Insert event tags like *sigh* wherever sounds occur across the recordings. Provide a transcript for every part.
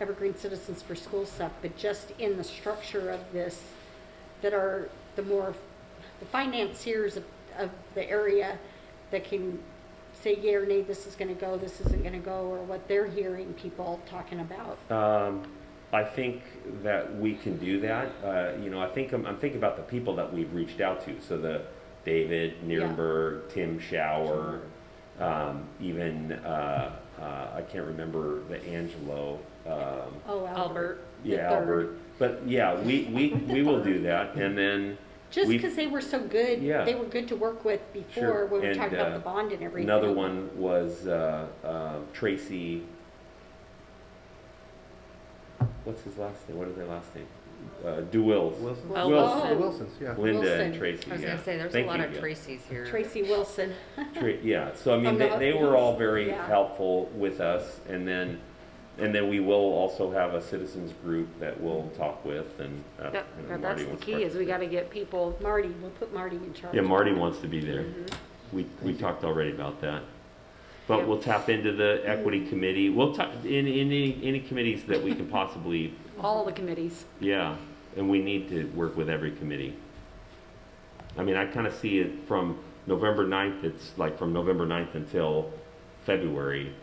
Evergreen Citizens for School stuff, but just in the structure of this, that are the more, the financiers of, of the area that can say yea or nay, this is gonna go, this isn't gonna go, or what they're hearing people talking about. Um, I think that we can do that. Uh, you know, I think I'm, I'm thinking about the people that we've reached out to. So the David Nierenberg, Tim Schauer, um, even uh, uh, I can't remember the Angelo. Um, Oh, Albert. Albert. the yeah, third. Albert. But yeah, we, we, we will do *laughs* that. And then Just we- because they were so good, Yeah. they were good to work with before Sure. when we And, talked about uh, the bond and everything. another one was uh, uh, Tracy. What's his last name? What is their last name? Uh, DeWills. Wilson? Oh, Wilson. Wilson. Wilson's, yeah. Linda Wilson. and Tracy. I was yeah. gonna say, there's a Thank lot you, of yeah. Tracy here. Tracy Wilson. Tra- yeah, so I mean, From they, the- they were all very yeah. helpful with us, and then, and then we will also have a citizens group that we'll talk with, and. uh, That, and that- Marty that's the wants to key, is we gotta get people, Marty, we'll put Marty in charge. part- Yeah, Marty wants to be there. Mm-hmm. We, we talked already about that. But Yeah. we'll tap into the equity committee, we'll tap, in, in any, any committees that *laughs* we can possibly, all the committees. yeah, and we need to work with every committee. I mean, I kind of see it from November 9th, it's like from November 9th until February,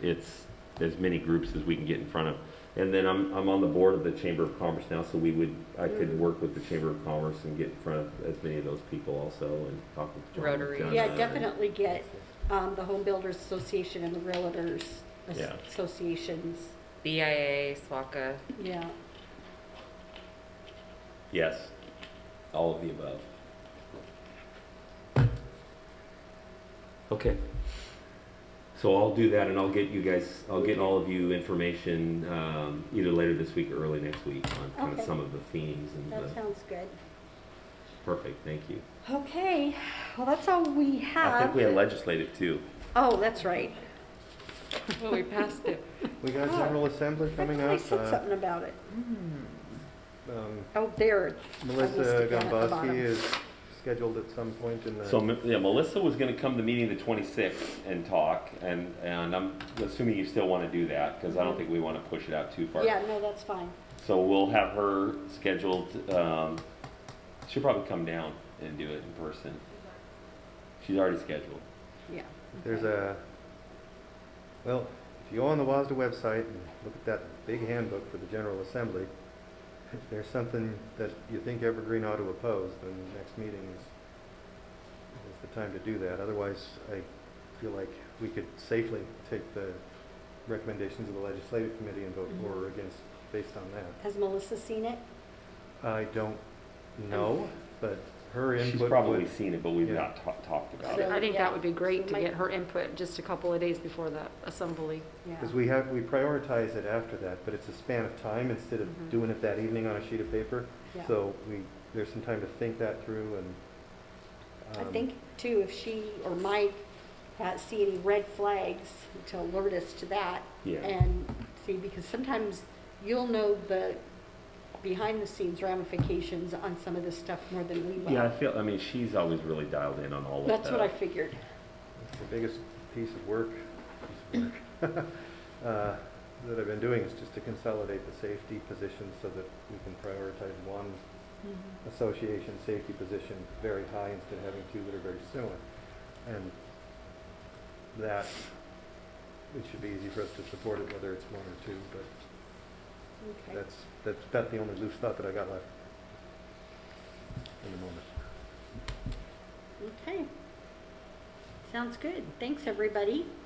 it's as many groups as we can get in front of. And then I'm, I'm on the board of the Chamber of Commerce now, so we would, I could work with the Chamber of Commerce and get in front of as many of those people also and talk with John. Rotary. John Yeah, Uh, Rotary. definitely get um, the Home Builders Association and the Realtors As- Yeah. Associations. BIA, SWACA. Yeah, Yes, all of the above. Okay. So I'll do that and I'll get you guys, I'll get all of you information, um, either later this week or early next week on kind Okay. of some of the themes and that the, sounds good. perfect, thank you. Okay, well, that's all we have. I think we had legislative too. Oh, that's right. Well, we passed it. We Oh, got General Assembly I coming thought I up. said uh, something about it. um, Oh, there. Melissa listed down at the bottom. Gomboski is scheduled at some point in the. So, Me- yeah, Melissa was gonna come to meeting the twenty-sixth and talk and, and I'm assuming you still wanna do that, cause I don't think we wanna push it out too far. Mm-hmm. Yeah, no, that's fine. So we'll have her scheduled, um, she'll probably come down and do it in person. She's already scheduled. Yeah. There's a, well, if you go on the WASDA website and look at that big handbook for the General Assembly, if there's something that you think Evergreen ought to oppose, then the next meeting is, is the time to do that. Otherwise, I feel like we could safely take the recommendations of the Legislative Committee and Mm-hmm. vote for or against based on that. Has Melissa seen it? I don't know, but her input She's would. probably seen it, but we've yeah. not ta- talked about So- uh, it. I think yeah. that would be great So to my- get her input just a couple of days before the assembly. Yeah. Because we have, we prioritize it after that, but it's a span of time instead of doing it that evening on a sheet of paper. Mm-hmm. Yeah. So um, we, there's some time to think that through and. I um, think too, if she or Mike uh, see any red flags to alert us to that. Yeah. And see, because sometimes you'll know the behind the scenes ramifications on some of this stuff more than we will. Yeah, I feel, I mean, she's always really dialed in on all of that. That's what I figured. It's the biggest piece of work, piece of work, *laughs* uh, that I've been doing is just to consolidate the safety positions so that we can prioritize one Mm-hmm. association safety position very high instead of having two that are very similar. And that, it should be easy for us to support it, whether it's one or two, but Okay. That's, that's about the only loose thought that I got left in the moment. Okay. Sounds good. Thanks, everybody.